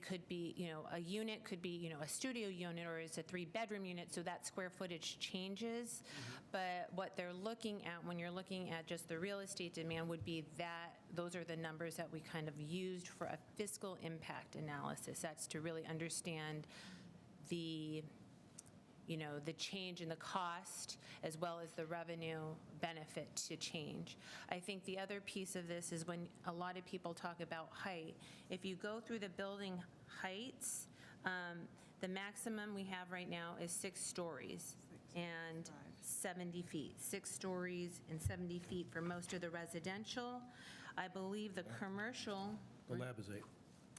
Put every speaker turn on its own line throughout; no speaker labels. It could be, you know, a unit could be, you know, a studio unit or it's a three-bedroom unit, so that square footage changes. But what they're looking at, when you're looking at just the real estate demand, would be that, those are the numbers that we kind of used for a fiscal impact analysis. That's to really understand the, you know, the change in the cost as well as the revenue benefit to change. I think the other piece of this is when a lot of people talk about height, if you go through the building heights, um, the maximum we have right now is six stories and 70 feet, six stories and 70 feet for most of the residential. I believe the commercial
The lab is eight.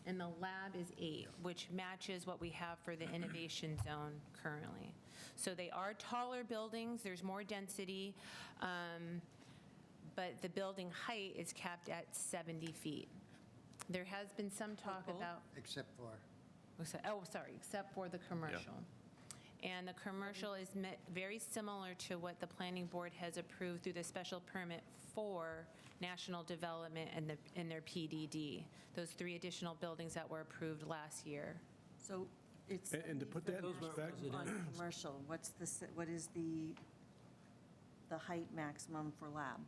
and the lab is eight, which matches what we have for the innovation zone currently. So they are taller buildings, there's more density, um, but the building height is capped at 70 feet. There has been some talk about,
Except for,
oh, so- oh, sorry, except for the commercial. And the commercial is me- very similar to what the planning board has approved through the special permit for national development and the, and their PDD, those three additional buildings that were approved last year.
So it's.
And- and to
70
put
for
that in
national
perspective-
On commercial, what's the, s- what is the, the height maximum for lab?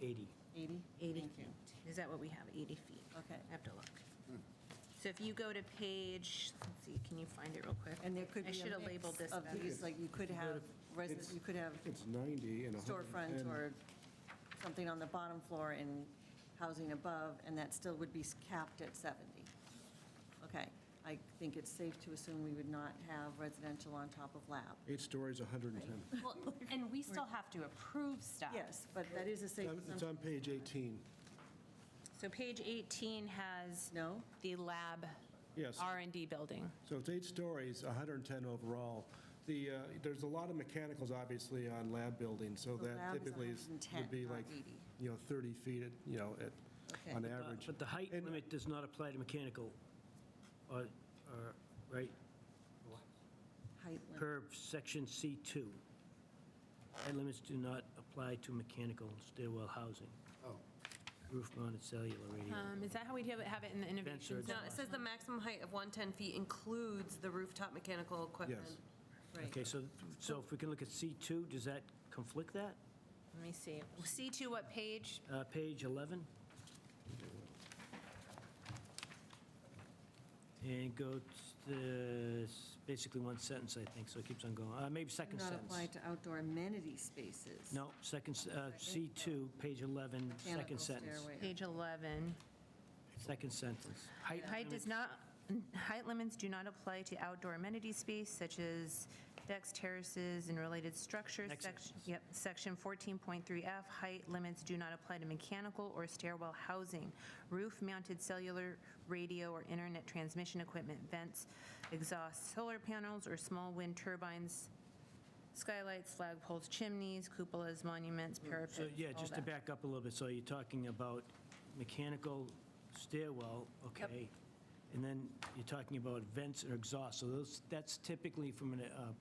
80.
80?
80
Thank you.
feet. Is that what we have, 80 feet?
Okay.
I have to look. So if you go to page, let's see, can you find it real quick?
And there could be.
I
a
should have
mix
labeled this
Of
better.
these, like you could have, resi-
it's-
you could have
It's 90 and
storefront or something on the bottom floor and housing above, and that still would be s- capped at 70. Okay, I think it's safe to assume we would not have residential on top of lab.
Eight stories, 110.
Well, And we still have to approve stuff.
Yes, but that is a safe
Um, It's
assumption.
on page 18.
So page 18 has
No?
the lab
Yes.
R and D building.
So it's eight stories, 110 overall. The, uh, there's a lot of mechanicals, obviously, on lab buildings, so
The
that
lab is
typically is, would
110,
be
not
like,
80.
you know, 30 feet, at you know, at,
Okay.
on
But
Uh,
average.
But the height
And-
limit does not apply to mechanical, or, or- right,
Height limit.
per section C2. Height limits do not apply to mechanical stairwell housing,
oh,
roof-mounted cellular radio.
Um, Is that how we have it have it in the innovation
Ventures.
zone?
No, it says the maximum height of 110 feet includes the rooftop mechanical equipment.
Yes.
Okay, so, so if we can look at C2, does that conflict that?
Let me see. C2 what page?
Uh, Page 11? And go to, the- it's basically one sentence, I think, so it keeps on going. Uh, Maybe second
Not
sentence.
apply to outdoor amenity spaces.
No, second, s- uh, C2, page 11,
Mechanical
second sentence.
stairway.
Page 11.
Second sentence. Height
Height does
limits-
not, height limits do not apply to outdoor amenity space such as decks, terraces, and related structures.
Next
Sec-
sentence.
Yep, section 14.3F, height limits do not apply to mechanical or stairwell housing, roof-mounted cellular radio or internet transmission equipment, vents, exhaust, solar panels, or small wind turbines, skylights, flagpoles, chimneys, cupolas, monuments, parapets,
So, yeah,
all
just to
that.
back up a little bit, so you're talking about mechanical stairwell, okay? And then you're talking about vents or exhaust, so those, that's typically from an, uh,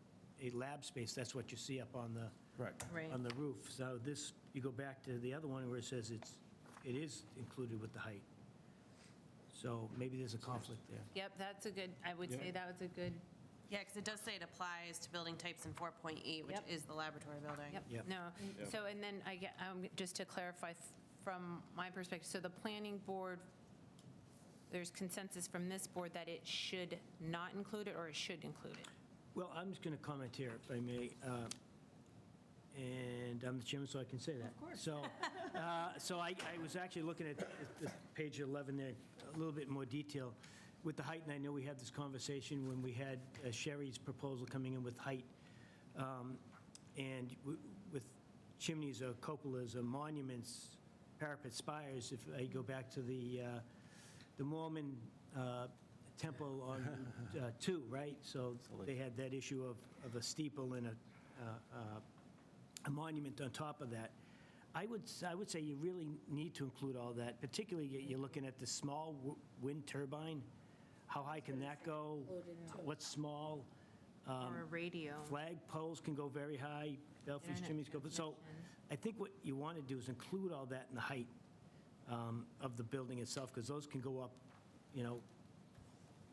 a lab space, that's what you see up on the.
Correct.
Right.
On the roof. So this, you go back to the other one where it says it's, it is included with the height. So maybe there's a conflict there.
Yep, that's a good, I would say
Yeah.
that was a good
Yeah, because it does say it applies to building types in 4.8, which
Yep.
is the laboratory building.
Yep,
Yep.
no. So, and then I get, um, just to clarify f- from my perspective, so the planning board, there's consensus from this board that it should not include it or it should include it?
Well, I'm just going to comment here, if I may, uh, and I'm the chairman, so I can say that. Of course. So, uh, so I I was actually looking at the- page 11 there, a little bit more detail with the height, and I know we had this conversation when we had uh, Sherry's proposal coming in with height, um, and w- with chimneys or cupolas or monuments, parapet spires, if I go back to the, uh, the Mormon uh, temple on Route, uh, 2, right? So they had that issue of, of a steeple and a, uh, uh, a monument on top of that. I would, s- I would say you really need to include all that, particularly you- you're looking at the small w- wind turbine. How high can that go? What's small? Um,
Or a radio?
Flag poles can go very high, Belfast chimneys go, but so I think what you want to do is include all that in the height um, of the building itself, because those can go up, you know,